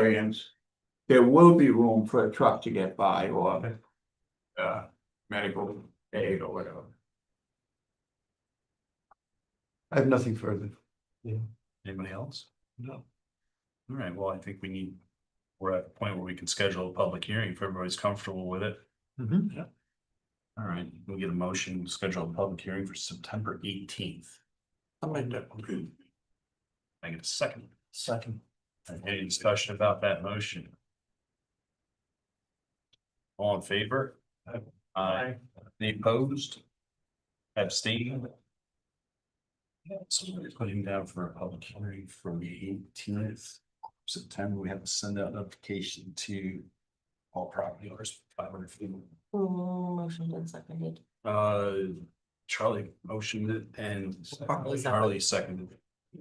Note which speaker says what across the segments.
Speaker 1: variance, there will be room for a truck to get by or uh, medical aid or whatever.
Speaker 2: I have nothing further.
Speaker 3: Anybody else? No. All right, well, I think we need, we're at a point where we can schedule a public hearing if everybody's comfortable with it.
Speaker 2: Mhm.
Speaker 3: All right, we'll get a motion, to schedule a public hearing for September eighteenth.
Speaker 2: I'll make that
Speaker 3: I get a second.
Speaker 2: second.
Speaker 3: Any discussion about that motion? All in favor? Aye. Any opposed? Abstained? So we're putting down for a public hearing for the eighteenth September. We have to send out notification to all property owners, five hundred feet.
Speaker 4: Mm, Motion been seconded.
Speaker 3: Uh, Charlie motioned it and
Speaker 4: Harley seconded.
Speaker 3: Charlie seconded. it.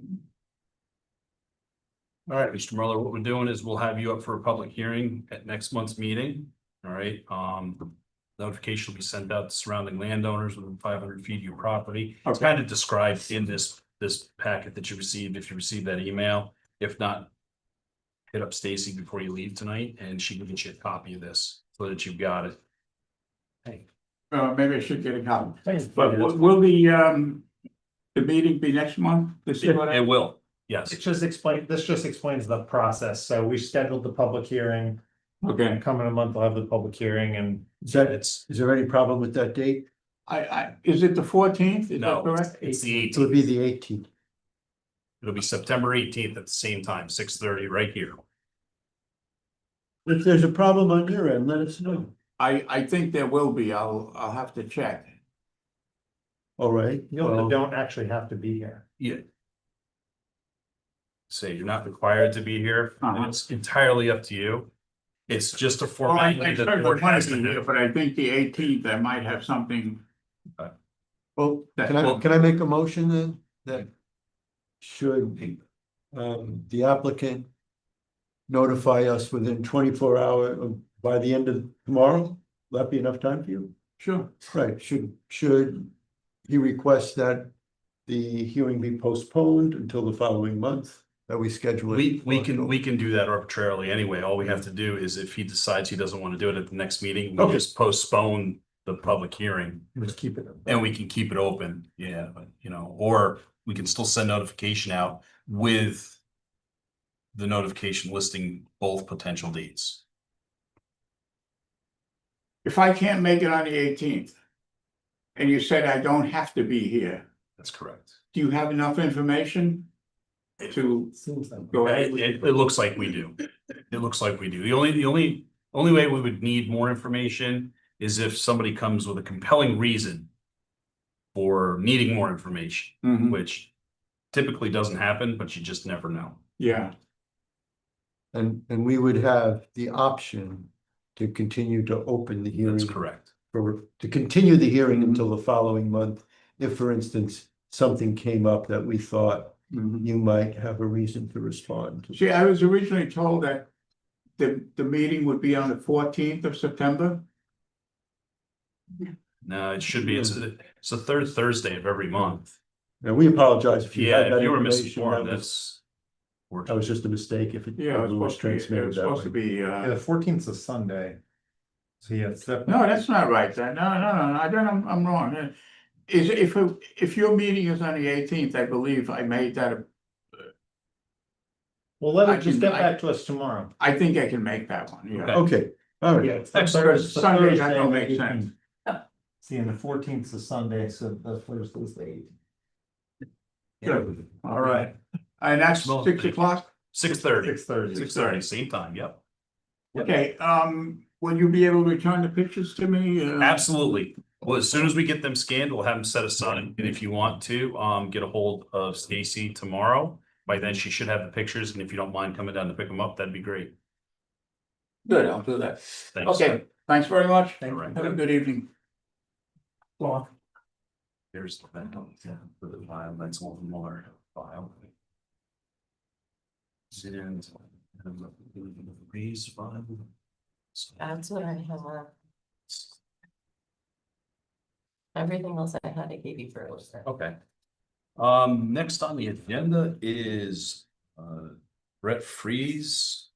Speaker 3: All right, Mr. Mueller, what we're doing is we'll have you up for a public hearing at next month's meeting. All right, um, notification will be sent out to surrounding landowners within five hundred feet of your property. It's kind of described in this, this packet that you received, if you received that email. If not, hit up Stacy before you leave tonight and she can get you a copy of this so that you've got it. Hey.
Speaker 1: Uh, maybe I should get a copy. But will- will the um, the meeting be next month? This is what I-
Speaker 3: It will, yes.
Speaker 5: It just explains, this just explains the process. So we scheduled the public hearing.
Speaker 1: Okay,
Speaker 5: Come in a month, we'll have the public hearing and
Speaker 2: Is that,
Speaker 3: It's,
Speaker 2: is there any problem with that date?
Speaker 1: I I, is it the fourteenth? Is that
Speaker 3: no,
Speaker 1: correct?
Speaker 3: it's the
Speaker 2: It would
Speaker 3: eighteenth.
Speaker 2: be the eighteenth.
Speaker 3: It'll be September eighteenth at the same time, six thirty, right here.
Speaker 2: If there's a problem on your end, let us know.
Speaker 1: I I think there will be. I'll I'll have to check.
Speaker 2: All right.
Speaker 5: you'll,
Speaker 2: well,
Speaker 5: don't actually have to be here.
Speaker 3: Say you're not required to be here. and
Speaker 1: Uh-huh.
Speaker 3: It's entirely up to you. It's just a
Speaker 1: Well, I I
Speaker 3: formality that the
Speaker 1: certainly
Speaker 3: board
Speaker 1: plan
Speaker 3: has
Speaker 1: to
Speaker 3: to
Speaker 1: do it,
Speaker 3: do.
Speaker 1: But I think the eighteenth, I might have something.
Speaker 2: Well,
Speaker 1: That-
Speaker 2: oh, can I, can I make a motion then? That should, um, the applicant notify us within twenty-four hour, uh, by the end of tomorrow? Will that be enough time for you?
Speaker 1: Sure.
Speaker 2: Right, should, should he request that the hearing be postponed until the following month, that we schedule it?
Speaker 3: We, we can,
Speaker 2: for-
Speaker 3: we can do that arbitrarily anyway. All we have to do is if he decides he doesn't want to do it at the next meeting, we'll
Speaker 2: Okay.
Speaker 3: just postpone the public hearing.
Speaker 2: Let's keep it.
Speaker 3: And we can keep it open, yeah, but you know, or we can still send notification out with. The notification listing both potential dates.
Speaker 1: If I can't make it on the eighteenth, and you said I don't have to be here,
Speaker 3: That's correct.
Speaker 1: do you have enough information to
Speaker 5: Seems that.
Speaker 1: go ahead?
Speaker 3: It, it, it looks like we do. It looks like we do. The only, the only, only way we would need more information is if somebody comes with a compelling reason. For needing more information,
Speaker 2: Mm-hmm.
Speaker 1: Mhm.
Speaker 3: which typically doesn't happen, but you just never know.
Speaker 1: Yeah,
Speaker 2: And, and we would have the option to continue to open the hearing.
Speaker 3: That's correct.
Speaker 2: For, to continue the hearing
Speaker 1: Mm-hmm.
Speaker 2: until the following month, if, for instance, something came up that we thought
Speaker 1: Mhm.
Speaker 2: you might have a reason to respond to.
Speaker 1: See, I was originally told that the, the meeting would be on the fourteenth of September.
Speaker 3: No, it should be, it's,
Speaker 2: Mm-hmm.
Speaker 3: it's the third Thursday of every month.
Speaker 2: Now, we apologize if you had
Speaker 3: Yeah,
Speaker 2: that
Speaker 3: if you were
Speaker 2: information. That
Speaker 3: misinformed,
Speaker 2: was,
Speaker 3: that's. or-
Speaker 2: that was just a mistake if it
Speaker 1: Yeah, it was supposed to
Speaker 2: was
Speaker 1: be, it
Speaker 2: transmitted
Speaker 1: was
Speaker 2: that
Speaker 1: supposed to
Speaker 2: way.
Speaker 1: be,
Speaker 5: Yeah,
Speaker 1: uh,
Speaker 5: the fourteenth is a Sunday. So yeah, it's
Speaker 1: no,
Speaker 5: definitely,
Speaker 1: that's not right. That- No, no, no, no, I don't, I'm, I'm wrong. Uh, Is, if, it- if your meeting is on the eighteenth, I believe I made that, a-
Speaker 5: well, let
Speaker 1: I
Speaker 5: it just
Speaker 1: can-
Speaker 5: get
Speaker 1: I-
Speaker 5: back to us tomorrow.
Speaker 1: I think I can make that one, yeah.
Speaker 3: Okay.
Speaker 2: Okay, all right.
Speaker 5: it's the
Speaker 3: Excellent.
Speaker 5: third- it's the
Speaker 1: Sunday, that
Speaker 5: Thursday
Speaker 1: don't
Speaker 5: of
Speaker 1: make
Speaker 5: the
Speaker 1: sense.
Speaker 5: 18th. See, and the fourteenth is Sunday, so the first is the eighteenth.
Speaker 1: Good. All right. And that's
Speaker 3: Well,
Speaker 1: six o'clock?
Speaker 3: Six thirty,
Speaker 5: Six thirty.
Speaker 3: six thirty, same time, yep.
Speaker 1: Okay, um, will you be able to return the pictures to me?
Speaker 2: Mm-hmm.
Speaker 1: Uh,
Speaker 3: Absolutely. Well, as soon as we get them scanned, we'll have them set aside.
Speaker 2: Mm-hmm.
Speaker 3: And if you want to, um, get a hold of Stacy tomorrow. By then, she should have the pictures, and if you don't mind coming down to pick them up, that'd be great.
Speaker 1: Good, I'll do that.
Speaker 3: Thanks.
Speaker 1: Okay, thanks very much.
Speaker 3: All right.
Speaker 1: Have a good evening.
Speaker 3: There's the for the file, that's one more file. And- Raise file.
Speaker 4: That's what I have. Everything else I had, I gave you first.
Speaker 3: Okay. Um, next on the agenda is uh Brett Freeze.